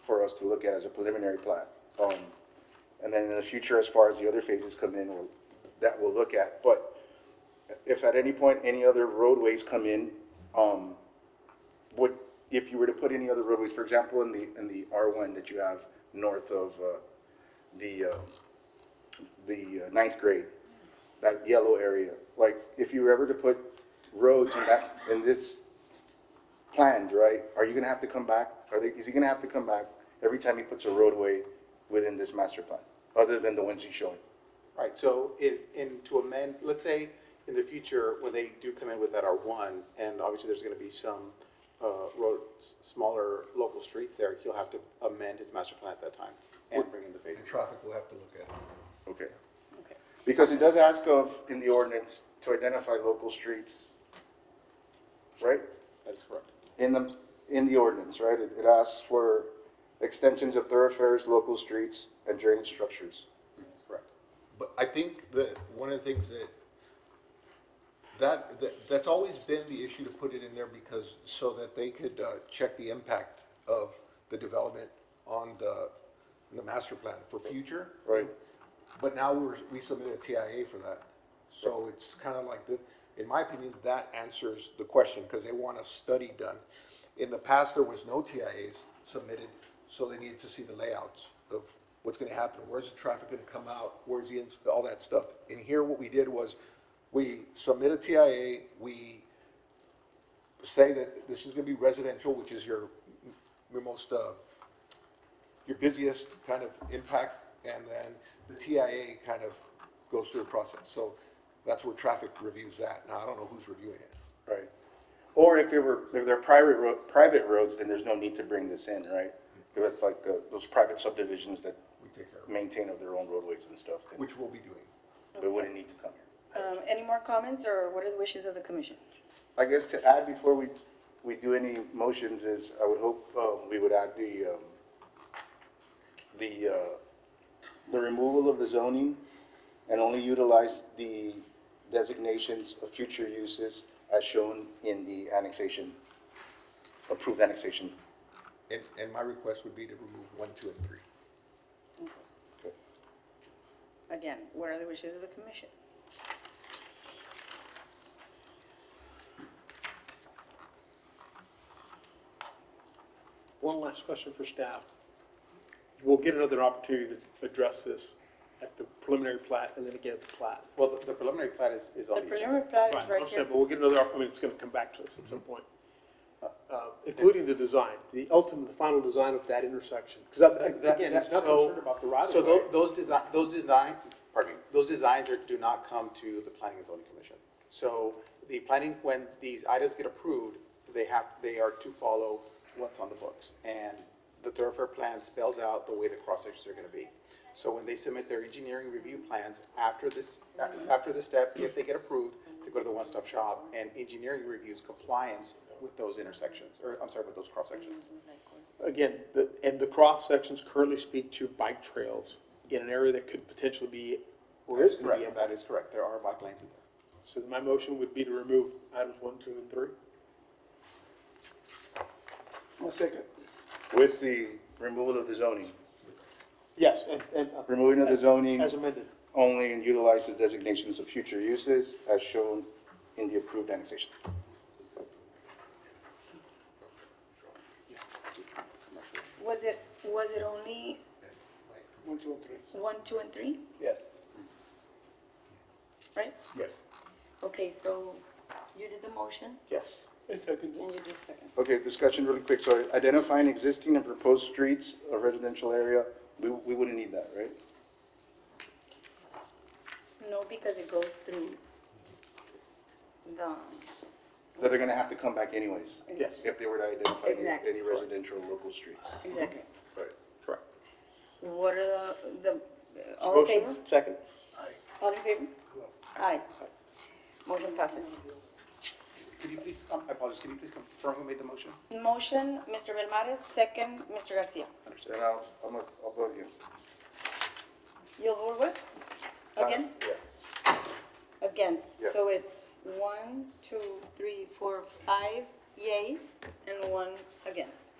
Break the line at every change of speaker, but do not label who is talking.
for us to look at as a preliminary plat. Um, and then in the future, as far as the other phases come in, we'll, that we'll look at. But if at any point any other roadways come in, um, would, if you were to put any other roadways, for example, in the, in the R1 that you have north of, uh, the, uh, the uh, ninth grade, that yellow area, like, if you were ever to put roads in that, in this planned, right, are you gonna have to come back, are they, is he gonna have to come back every time he puts a roadway within this master plan, other than the ones he's showing?
Right, so in, in to amend, let's say in the future, when they do come in with that R one, and obviously there's gonna be some, uh, road, s- smaller local streets there, he'll have to amend his master plan at that time and bring in the phases.
Traffic will have to look at it.
Okay.
Okay.
Because it does ask of, in the ordinance, to identify local streets, right?
That is correct.
In the, in the ordinance, right? It it asks for extensions of thoroughfares, local streets, and drainage structures.
Correct.
But I think that one of the things that, that, that- that's always been the issue to put it in there because, so that they could uh, check the impact of the development on the, the master plan for future.
Right.
But now we're, we submitted a TIA for that. So it's kind of like the, in my opinion, that answers the question because they want a study done. In the past, there was no TIAs submitted, so they needed to see the layouts of what's going to happen, where's the traffic going to come out, where's the, ins- all that stuff. And here, what we did was, we submit a TIA, we say that this is going to be residential, which is your, your most, uh, your busiest kind of impact, and then the TIA kind of goes through the process. So that's where traffic reviews that. Now, I don't know who's reviewing it.
Right. Or if it were, if they're private ro private roads, then there's no need to bring this in, right? If it's like uh, those private subdivisions that
We take care of it,
maintain of their own roadways and stuff, then
which we'll be doing.
it wouldn't need to come here.
Um, any more comments or what are the wishes of the commission?
I guess to add before we, we do any motions is, I would hope, um, we would add the, um, the, uh, the removal of the zoning and only utilize the designations of future uses as shown in the annexation, approved annexation.
And, and my request would be to remove one, two, and three.
Again, what are the wishes of the commission?
One last question for staff. We'll get another opportunity to address this at the preliminary plat and then again at the plat.
Well, the- the preliminary plat is, is
The
on the agenda.
preliminary plat
Right,
is
I
right here.
understand, But we'll get another, opp- I mean, it's gonna come back to us at some point. Uh, Including the design, the ultimate, the final design of that intersection. Because
That-
again,
that-
there's nothing
so-
certain about the right of
So
way.
tho- those design, those designs, pardon me, those designs are, do not come to the planning and zoning commission. So the planning, when these items get approved, they have, they are to follow what's on the books. And the thoroughfare plan spells out the way the cross sections are gonna be. So when they submit their engineering review plans after this, a- after this step, if they get approved, they go to the one-stop shop and engineering reviews compliance with those intersections, or I'm sorry, with those cross sections.
Again, the, and the cross sections currently speak to bike trails in an area that could potentially be, or is gonna be.
Correct, that is correct, there are bike lanes in there.
So my motion would be to remove items one, two, and three. second.
With the removal of the zoning,
Yes, and, and. uh,
removing of the zoning
As amended.
only and utilize the designations of future uses as shown in the approved annexation.
Was it, was it only
One, two, and three.
one, two, and three,
Yes.
right?
Yes.
Okay, so you did the motion
Yes. A second.
and you did second.
Okay, discussion really quick, so identifying existing and proposed streets of residential area, we, we wouldn't need that, right?
No, because it goes through the,
That they're gonna have to come back anyways,
Yes,
if they were to identify any-
Exactly.
any residential local streets.
exactly.
Right.
correct.
What are the, the, all in favor?
Motion, Second.
All in favor? Aye. Motion passes.
Could you please, um, I apologize, can you please confirm who made the motion?
Motion, Mr. Velmares, second, Mr. Garcia.
Understood.
And I'll, I'm, gonna- I'll go against. it.
You'll vote with? Against?
Yeah.
Against.
Yeah.
So it's one, two, three, four, five yays and one against.